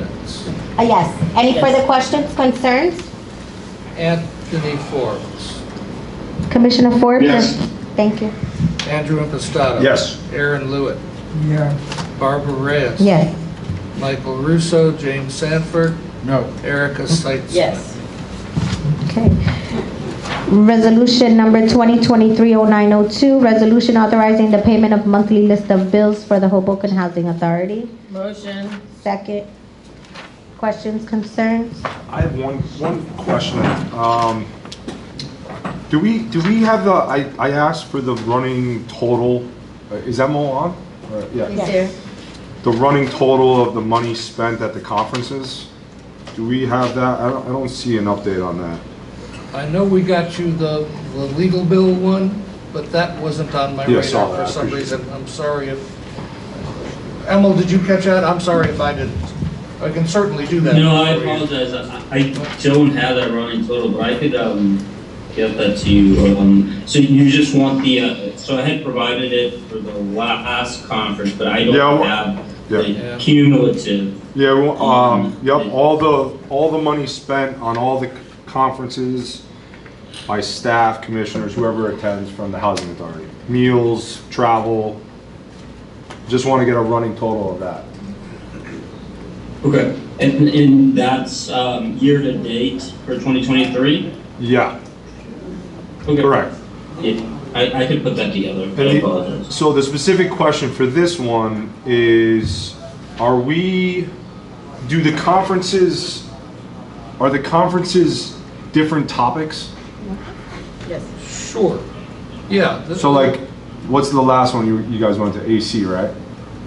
minutes. Uh, Yes. Any Yes. further questions, concerns? Anthony Forbes, Commissioner Forbes? Yes. Thank you. Andrew Impastato. Yes. Aaron Lewitt. Barbara Reyes. Yes. Michael Russo, James Sanford, No. Erica Mm-hmm. Seitzman. Yes. Okay. Resolution number 2023-0902, resolution authorizing the payment of monthly list of bills for the Hoboken Housing Authority. Motion. Second. Questions, concerns? I have one, one question. Um, Do we, do we have the, I, I asked for the running total, Uh, is that Mo on? Or- Yeah, Yes. Yes. the running total of the money spent at the conferences? Do we have that? I don't, I don't see an update on that. I know we got you the, the legal bill one, but that wasn't on my Yeah, I saw radar that. for I some appreciate reason. I'm sorry if, Emil, did you catch that? I'm sorry if I didn't. I can certainly do that. No, I for you. apologize. I I don't have that running total, but I could um, get that to you. Um, So you just want the, uh, so I had provided it for the last conference, but I Yeah, I don't wa- have yeah. the cumulative. Yeah, well, um, yep, all the, all the money spent on all the conferences by staff, commissioners, whoever attends from the housing authority. Meals, travel, just want to get a running total of that. Okay. And, and that's um, year-to-date for 2023? Yeah, Okay. correct. Yeah, I, I could put that together. I And the- apologize. So the specific question for this one is, are we, do the conferences, are the conferences different topics? Yes. Sure. Yeah. this- So like, what's the last one you, you guys went to, AC, right?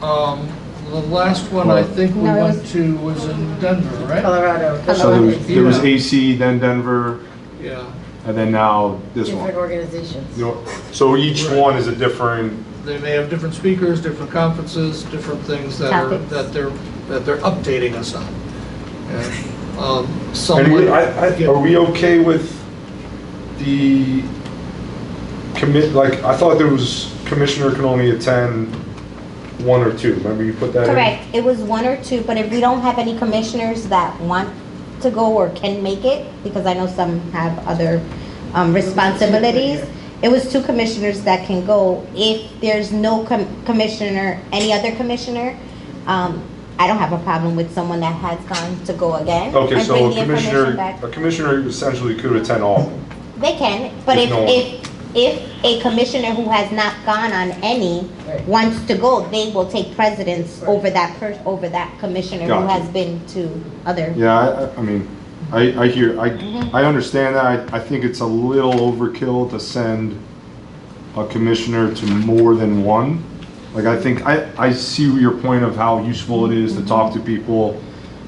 Um, the last one I think we No, it went was- to was in Denver, right? Colorado. So there was, there was Yeah. AC, then Denver, Yeah, and then now this Different one. organizations. You know, So each one is a different, they may have different speakers, different conferences, different things that are, Topics. that they're, that they're updating us on. And, um, and Someone. we, I, I, are we okay with the commit, like, I thought there was commissioner can only attend one or two, remember you put that in? Correct. It was one or two, but if we don't have any commissioners that want to go or can make it, because I know some have other um, responsibilities, it was two commissioners that can go. If there's no com- commissioner, any other commissioner, um, I don't have a problem with someone that has gone to go again. Okay, and so bring a the information commissioner, back. a commissioner essentially could attend all of them. They can, but If if, no one- if, if a commissioner who has not gone on any Right. wants to go, they will take precedence Right. over that person, over that commissioner who Gotcha. has been to other. Yeah, I, I- I mean, I, I hear, I, I understand that, I, I think it's a little overkill to send a commissioner to more than one. Like, I think, I, I see your point of how useful it is to talk to people,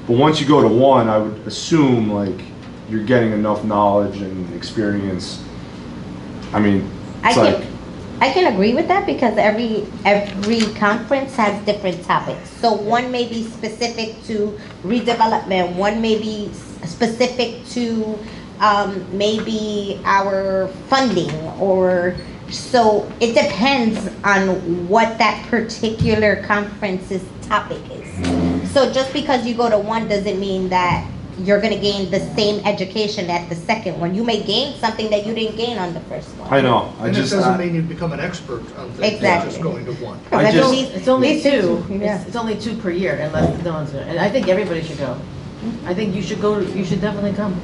but once you go to one, I would assume, like, you're getting enough knowledge and experience. I mean, I it's like, can, I can agree with that because every, every conference has different topics. So one may be specific to redevelopment, one may be s- specific to, um, maybe our funding or, so it depends on what that particular conference's topic Mm-hmm. is. So just because you go to one doesn't mean that you're gonna gain the same education at the second one. You may gain something that you didn't gain on the first one. I know, I And it just. doesn't I- mean you become an expert on things, it's Exactly. just going to one. I That's just- at least- It's only least it's- two. yeah. It's it's only two per year unless no one's there. And I think everybody should go. I think you should go, you should definitely come.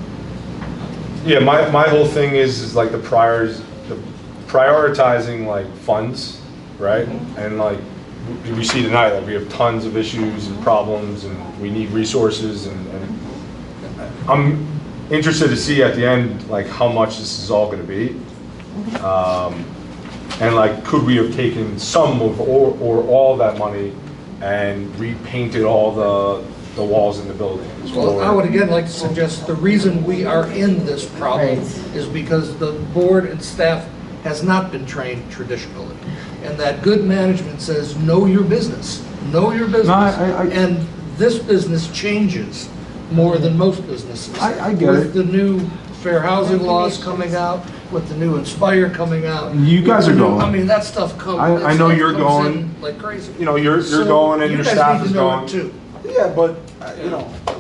Yeah, my, my whole thing is, is like the priors, the prioritizing like funds, right? And like, we- we see tonight, that we have tons of issues and problems and we need resources and, and I'm interested to see at the end, like, how much this is all gonna be. Um, And like, could we have taken some of, or, or all that money and repainted all the, the walls in the buildings? Well, I or- would again like to suggest the reason we are in this problem Right. is because the board and staff has not been trained traditionally. And that good management says, know your business, know your business. I- I- And this business changes more than most businesses. I- I get With it. the new fair housing laws coming out, with the new Inspire coming out. You guys are with the new- going. I mean, that stuff comes. I- I know you're going. Like crazy. You know, you're, So you're going and you your guys staff need is to know it going. too. Yeah, but I uh, you know,